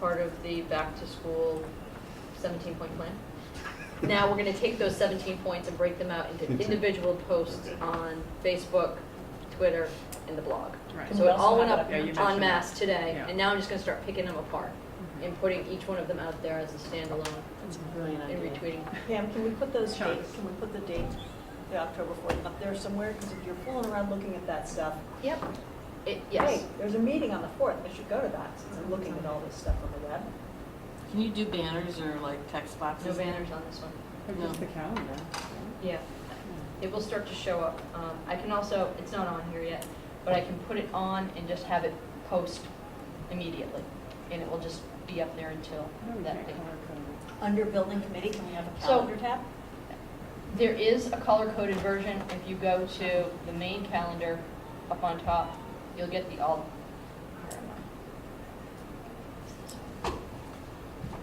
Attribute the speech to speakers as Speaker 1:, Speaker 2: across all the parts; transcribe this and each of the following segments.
Speaker 1: part of the back to school seventeen point plan. Now, we're gonna take those seventeen points and break them out into individual posts on Facebook, Twitter, and the blog.
Speaker 2: Right.
Speaker 1: So it all went up
Speaker 2: Yeah, you
Speaker 1: en
Speaker 2: mentioned
Speaker 1: masse today,
Speaker 2: Yeah.
Speaker 1: and now I'm just gonna start picking them apart and putting each one of them out there as a standalone
Speaker 3: That's a brilliant
Speaker 1: and
Speaker 3: idea.
Speaker 1: retweeting.
Speaker 4: Pam, can we put those
Speaker 2: Sure.
Speaker 4: dates, can we put the date, the October 4th up there somewhere? Because if you're fooling around looking at that stuff,
Speaker 1: Yep. It, yes.
Speaker 4: hey, there's a meeting on the 4th, I should go to that since I'm looking at all this stuff on the web.
Speaker 3: Can you do banners or like text
Speaker 1: No
Speaker 3: boxes?
Speaker 1: banners on this one.
Speaker 2: Or just the calendar.
Speaker 1: Yeah, it will start to show up. Um, I can also, it's not on here yet, but I can put it on and just have it post immediately. And it will just be up there until
Speaker 2: No, we
Speaker 1: that
Speaker 2: can't
Speaker 1: day.
Speaker 2: color code
Speaker 4: Under building committee, can we have a
Speaker 1: So-
Speaker 4: calendar tab?
Speaker 1: There is a color-coded version. If you go to the main calendar up on top, you'll get the all. where am I?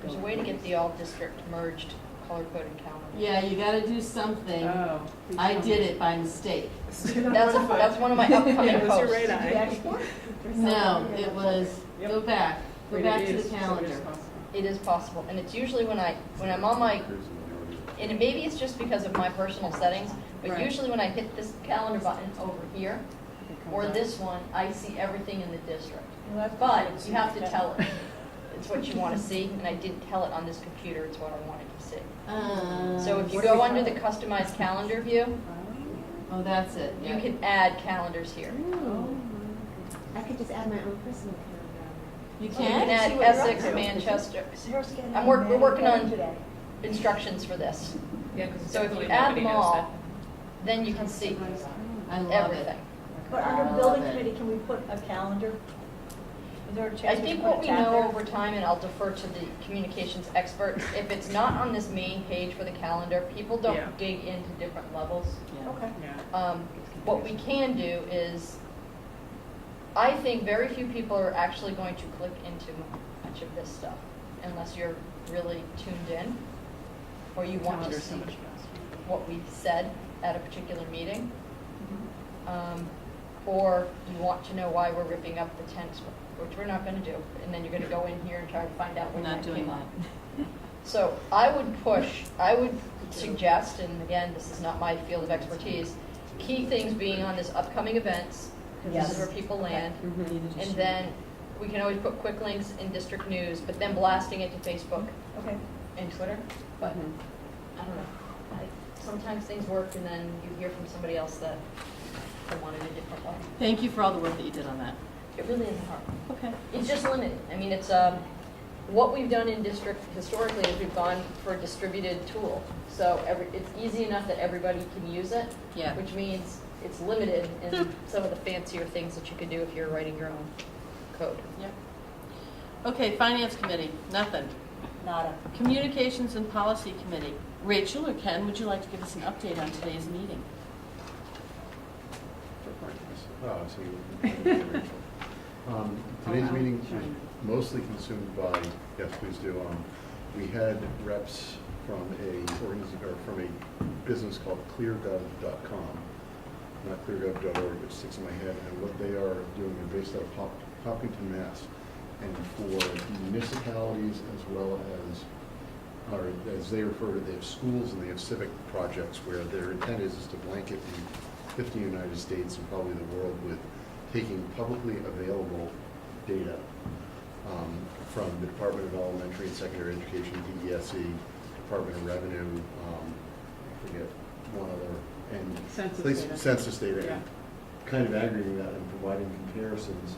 Speaker 1: There's a way to get the all-district merged color-coded calendar.
Speaker 3: Yeah, you gotta do something.
Speaker 2: it. Oh. we
Speaker 3: I
Speaker 2: can't.
Speaker 3: did it by mistake.
Speaker 1: That's, that's one of my upcoming
Speaker 2: It was your
Speaker 1: posts.
Speaker 2: right
Speaker 4: Did
Speaker 2: eye.
Speaker 4: you export?
Speaker 3: No, it was, go back, go
Speaker 2: Wait,
Speaker 3: back
Speaker 2: it
Speaker 3: to
Speaker 2: is,
Speaker 3: the
Speaker 2: so it is
Speaker 3: calendar.
Speaker 2: possible.
Speaker 1: It is possible, and it's usually when I, when I'm on my, and it- maybe it's just because of my personal settings, but
Speaker 2: Right.
Speaker 1: usually when I hit this calendar button over here,
Speaker 2: It comes
Speaker 1: or
Speaker 2: up.
Speaker 1: this one, I see everything in the district.
Speaker 4: Well, that's-
Speaker 1: But you have to tell it, it's what you want to see, and I didn't tell it on this computer, it's what I wanted to see. So if you
Speaker 4: What do
Speaker 1: go
Speaker 4: we
Speaker 1: under
Speaker 4: call
Speaker 1: the customized calendar view,
Speaker 3: Oh, that's it,
Speaker 1: you
Speaker 3: yeah.
Speaker 1: can add calendars here.
Speaker 2: Oh.
Speaker 5: I could just add my own personal calendar.
Speaker 3: You
Speaker 1: You can
Speaker 3: can?
Speaker 4: see
Speaker 1: add
Speaker 4: what you're up
Speaker 1: Essex,
Speaker 4: to.
Speaker 1: Manchester,
Speaker 4: Sarah's getting
Speaker 1: I'm work- we're working on-
Speaker 4: today.
Speaker 1: instructions for this.
Speaker 6: Yeah, because
Speaker 1: So if you
Speaker 6: definitely
Speaker 1: add
Speaker 6: nobody
Speaker 1: them
Speaker 6: knows that.
Speaker 1: all, then you can see
Speaker 3: I love it.
Speaker 1: everything.
Speaker 4: But
Speaker 3: I
Speaker 4: under
Speaker 3: love
Speaker 4: building
Speaker 3: it.
Speaker 4: committee, can we put a calendar? Is there a
Speaker 1: I
Speaker 4: chance we
Speaker 1: think
Speaker 4: can
Speaker 1: what
Speaker 4: put a
Speaker 1: we
Speaker 4: tab
Speaker 1: know
Speaker 4: there?
Speaker 1: over time, and I'll defer to the communications experts, if it's not on this main page for the calendar, people
Speaker 2: Yeah.
Speaker 1: don't dig into different levels.
Speaker 3: Yeah.
Speaker 4: Okay.
Speaker 2: Yeah.
Speaker 1: Um, What we can do is, I think very few people are actually going to click into much of this stuff unless you're really tuned in or you want to
Speaker 2: Calendar's so
Speaker 1: see
Speaker 2: much faster.
Speaker 1: what we said at a particular meeting.
Speaker 3: Mm-hmm.
Speaker 1: Um, Or you want to know why we're ripping up the tents, which we're not gonna do, and then you're gonna go in here and try to find out
Speaker 3: We're
Speaker 1: when
Speaker 3: not
Speaker 1: that
Speaker 3: doing
Speaker 1: came
Speaker 3: that.
Speaker 1: up. So I would push, I would suggest, and again, this is not my field of expertise, key things being on this upcoming events, because this is
Speaker 4: Yes.
Speaker 1: where people land.
Speaker 2: Mm-hmm.
Speaker 3: Neither does
Speaker 1: And
Speaker 3: she.
Speaker 1: then we can always put quick links in district news, but then blasting it to Facebook
Speaker 4: Okay.
Speaker 1: and Twitter. But
Speaker 2: Mhm.
Speaker 1: I don't know. I- Sometimes things work and then you hear from somebody else that they wanted a different way.
Speaker 3: Thank you for all the work that you did on that.
Speaker 1: It really isn't hard.
Speaker 3: Okay.
Speaker 1: It's just limited. I mean, it's, um, what we've done in district historically is we've gone for a distributed tool. So every, it's easy enough that everybody can use it,
Speaker 3: Yeah.
Speaker 1: which means it's limited in some of the fancier things that you can do if you're writing your own code.
Speaker 3: Yep. Okay, Finance Committee, nothing.
Speaker 4: Nada.
Speaker 3: Communications and Policy Committee. Rachel or Ken, would you like to give us an update on today's meeting?
Speaker 7: Oh, I see. Um,
Speaker 1: Oh,
Speaker 7: Today's meeting was mostly consumed by, yes, please do, um, we had reps from a organiz- or from a business called cleargov.com, not cleargov.org, which sticks in my head, and what they are doing, they're based out of Hop- Hopkinton, Mass. And for municipalities as well as or as they refer to, they have schools and they have civic projects where their intent is, is to blanket the 50 United States and probably the world with taking publicly available data um, from the Department of Elementary and Secondary Education, DESE, E, Department of Revenue, um, I forget, one other, and.
Speaker 2: Census
Speaker 7: place-
Speaker 2: data.
Speaker 7: Census data,
Speaker 2: Yeah.
Speaker 7: and kind of aggregating that and providing comparisons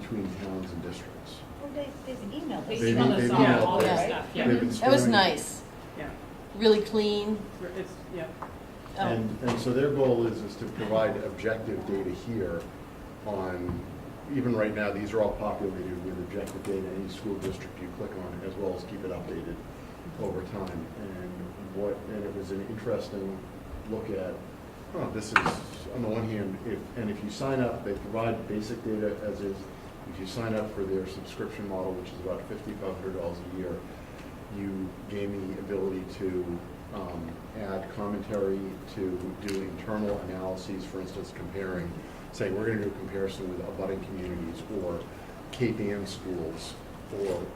Speaker 7: between towns and districts.
Speaker 4: Well, they, they've emailed us.
Speaker 6: They
Speaker 7: They've-
Speaker 6: emailed us
Speaker 7: they've
Speaker 6: all,
Speaker 3: emailed
Speaker 6: all their
Speaker 3: us.
Speaker 6: stuff,
Speaker 2: Yeah.
Speaker 6: yeah.
Speaker 7: They've been
Speaker 3: That was
Speaker 7: sparing-
Speaker 3: nice,
Speaker 2: Yeah,
Speaker 3: really clean.
Speaker 2: We're- it's, yeah.
Speaker 3: Oh.
Speaker 7: And, and so their goal is, is to provide objective data here on, even right now, these are all populated with objective data, any school district you click on, as well as keep it updated over time. And what, and it was an interesting look at, oh, this is, on the one hand, if, and if you sign up, they provide basic data as is. If you sign up for their subscription model, which is about fifty-five hundred dollars a year, you gave me the ability to um, add commentary, to do internal analyses, for instance, comparing, say, we're going to do a comparison with abutting communities, or KPM schools, or